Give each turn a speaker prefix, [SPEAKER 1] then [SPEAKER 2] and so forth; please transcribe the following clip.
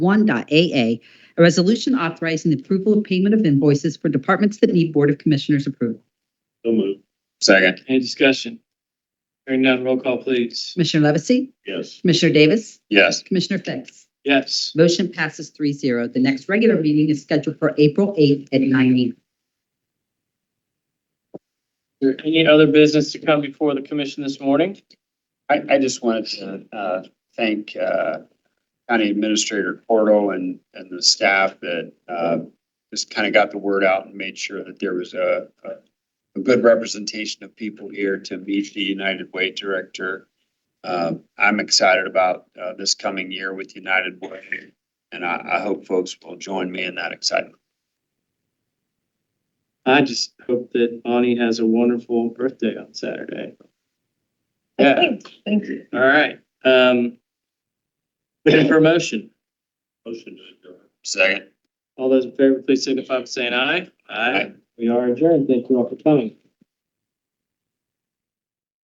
[SPEAKER 1] 1.AA, a resolution authorizing the approval of payment of invoices for departments that need Board of Commissioners approval.
[SPEAKER 2] So moved.
[SPEAKER 3] Second.
[SPEAKER 4] Any discussion? Hearing none, roll call please.
[SPEAKER 1] Commissioner Levesey?
[SPEAKER 2] Yes.
[SPEAKER 1] Commissioner Davis?
[SPEAKER 3] Yes.
[SPEAKER 1] Commissioner Fix?
[SPEAKER 4] Yes.
[SPEAKER 1] Motion passes three zero. The next regular meeting is scheduled for April 8th at 9 a.m.
[SPEAKER 4] Is there any other business to come before the commission this morning?
[SPEAKER 3] I, I just wanted to, uh, thank, uh, County Administrator Porto and, and the staff that, uh, just kind of got the word out and made sure that there was a, a, a good representation of people here to meet the United Way Director. Um, I'm excited about, uh, this coming year with United Way, and I, I hope folks will join me in that excitement.
[SPEAKER 4] I just hope that Bonnie has a wonderful birthday on Saturday. Yeah,
[SPEAKER 1] Thank you.
[SPEAKER 4] all right. Um, looking for a motion.
[SPEAKER 2] Motion to adjourn.
[SPEAKER 3] Second.
[SPEAKER 4] All those in favor, please signify by saying aye.
[SPEAKER 3] Aye.
[SPEAKER 4] We are adjourned. Thank you all for coming.